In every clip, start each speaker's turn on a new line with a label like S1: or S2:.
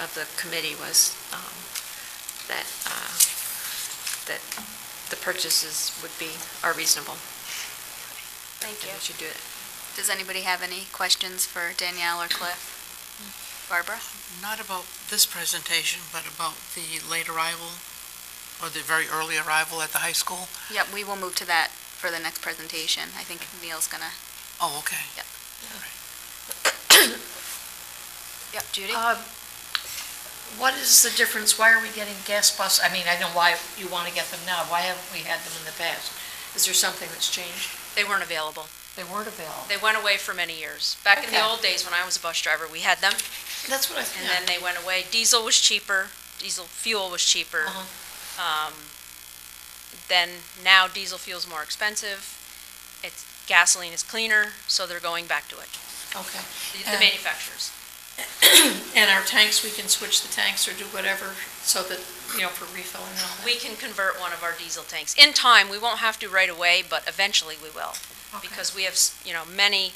S1: of the committee was um, that, uh, that the purchases would be, are reasonable.
S2: Thank
S1: And we
S2: you.
S1: should do it.
S2: Does anybody have any questions for Danielle or Cliff? Barbara?
S3: Not about this presentation, but about the late arrival, or the very early arrival at the high school?
S2: Yep, we will move to that for the next presentation. I think Neil's gonna,
S3: Oh, okay.
S2: yep, Judy?
S4: Uh,
S5: Um, What is the difference, why are we getting gas bus, I mean, I know why you want to get them now, why haven't we had them in the past? Is there something that's changed?
S4: They weren't available.
S5: They weren't available.
S4: They went away for many years. Back in the
S5: Okay.
S4: old days, when I was a bus driver, we had them,
S5: That's what I
S4: and then
S5: thought.
S4: they went away. Diesel was cheaper, diesel fuel was cheaper.
S5: Uh-huh.
S4: Um, Then, now diesel fuel's more expensive, it's, gasoline is cleaner, so they're going back to it,
S5: Okay.
S4: the-
S5: Uh,
S4: the manufacturers.
S5: And our tanks, we can switch the tanks or do whatever, so that, you know, for refilling and all that?
S4: We can convert one of our diesel tanks. In time, we won't have to right away, but eventually we will.
S5: Okay.
S4: because we have, s- you know, many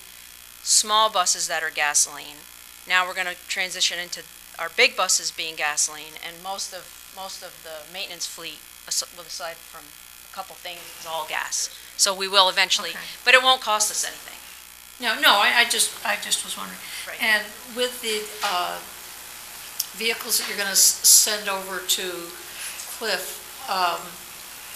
S4: small buses that are gasoline. Now we're gonna transition into our big buses being gasoline, and most of, most of the maintenance fleet, as- well, aside from a couple things, is all gas. So we will eventually,
S5: Okay.
S4: but it won't cost us anything.
S5: No, no, I, I just, I just was wondering.
S4: Right.
S5: And with the uh, vehicles that you're going to send over to Cliff, um,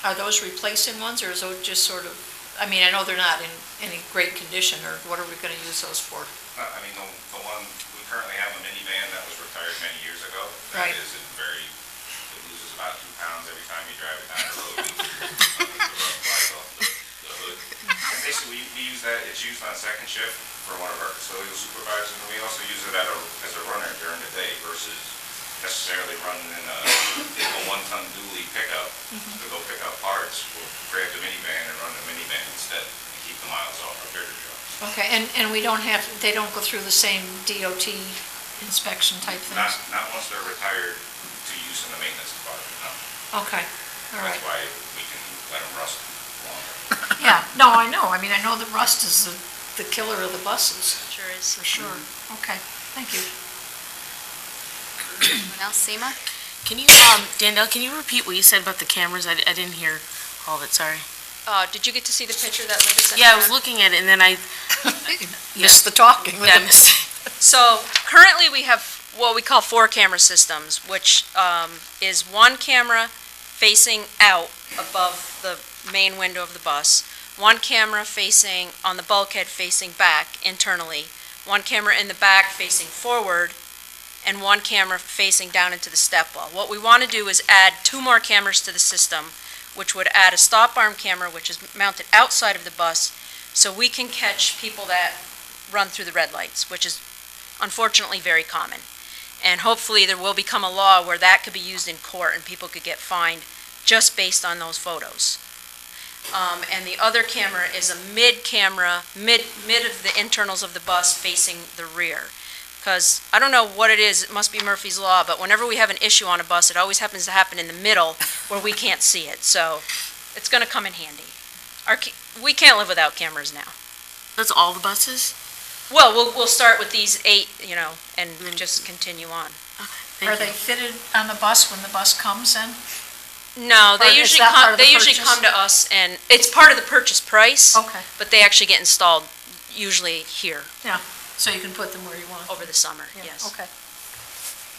S5: are those replacing ones, or is those just sort of, I mean, I know they're not in any great condition, or what are we going to use those for?
S6: Uh, I mean, the, the one, we currently have a minivan that was retired many years ago.
S5: Right.
S6: That is in very, it loses about two pounds every time you drive it down the road. And Basically, we- we use that, it's used on second shift for one of our custodial supervisors, and we also use it at a, as a runner during the day versus necessarily running in a, a one-ton dually pickup to go pick up parts. We'll grab the minivan and run the minivan instead and keep the miles off our dirt truck.
S5: Okay, and, and we don't have, they don't go through the same DOT inspection type
S6: Not,
S5: things?
S6: not once they're retired to use in the maintenance department, no.
S5: Okay, all right.
S6: That's why we can let them rust longer.
S5: Yeah, no, I know, I mean, I know that rust is the, the killer of the buses,
S4: Sure is.
S5: for sure. Okay, thank you.
S2: Anyone else? Seema?
S7: Can you, um, Danielle, can you repeat what you said about the cameras? I, I didn't hear all of it, sorry.
S4: Uh, did you get to see the picture that Linda sent?
S7: Yeah, I was
S4: around?
S7: looking at it and then I,
S3: Missed the talking.
S7: yeah, I missed it.
S4: So currently, we have what we call four camera systems, which um, is one camera facing out above the main window of the bus, one camera facing, on the bulkhead facing back internally, one camera in the back facing forward, and one camera facing down into the step well. What we want to do is add two more cameras to the system, which would add a stop arm camera, which is mounted outside of the bus, so we can catch people that run through the red lights, which is unfortunately very common. And hopefully, there will become a law where that could be used in court and people could get fined just based on those photos. Um, and the other camera is a mid-camera, mid, mid of the internals of the bus facing the rear. Because I don't know what it is, it must be Murphy's Law, but whenever we have an issue on a bus, it always happens to happen in the middle where we can't see it, so it's gonna come in handy. Our, ca- we can't live without cameras now.
S7: That's all the buses?
S4: Well, we'll, we'll start with these eight, you know, and just continue on.
S5: Are
S7: Thank
S5: they
S7: you.
S5: fitted on the bus when the bus comes in?
S4: No,
S5: Or
S4: they
S5: is
S4: usually
S5: that part
S4: come,
S5: of the
S4: they usually
S5: purchase?
S4: come to us and Oh. it's part of the purchase price,
S5: Okay,
S4: but they actually get installed usually here
S5: so you can put them where you want.
S4: over the summer,
S5: Yeah,
S4: Oh, yes.
S5: Okay.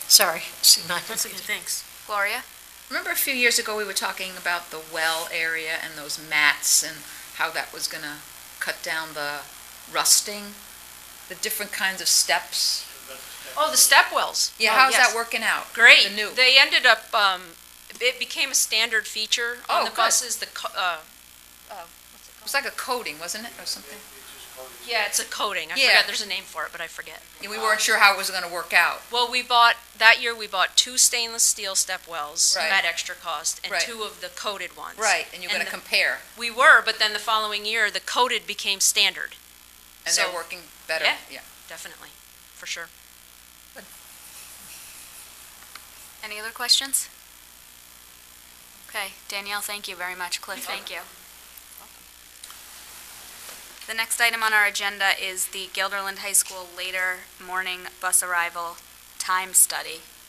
S5: Sorry, see, not.
S7: That's okay, thanks.
S2: Gloria?
S8: Remember a few years ago, we were talking about the well area and those mats and how that was gonna cut down the rusting, the different kinds of steps?
S4: Oh, the step wells.
S8: Yeah,
S4: Oh,
S8: how's
S4: yes.
S8: that working out?
S4: Great.
S8: The new?
S4: They ended up, um, it became a standard feature
S8: Oh,
S4: on the
S8: good.
S4: buses, the, co- uh,
S8: It was like a coating, wasn't it, or something?
S4: yeah, it's a coating. I
S8: Yeah.
S4: forgot, there's a name for it, but I forget.
S8: Yeah, we weren't sure how it was gonna work out.
S4: Well, we bought, that year we bought two stainless steel step wells
S8: Right.
S4: at extra cost and
S8: Right.
S4: two of the coated ones.
S8: And you're
S4: And
S8: gonna
S4: the-
S8: compare,
S4: We were, but then the following year, the coated became standard,
S8: and they're
S4: So-
S8: working better,
S4: Yeah.
S8: yeah.
S4: definitely, for sure.
S2: Any other questions? Okay, Danielle, thank you very much. Cliff, thank you. The next item on our agenda is the Gilderland High School later morning bus arrival time study.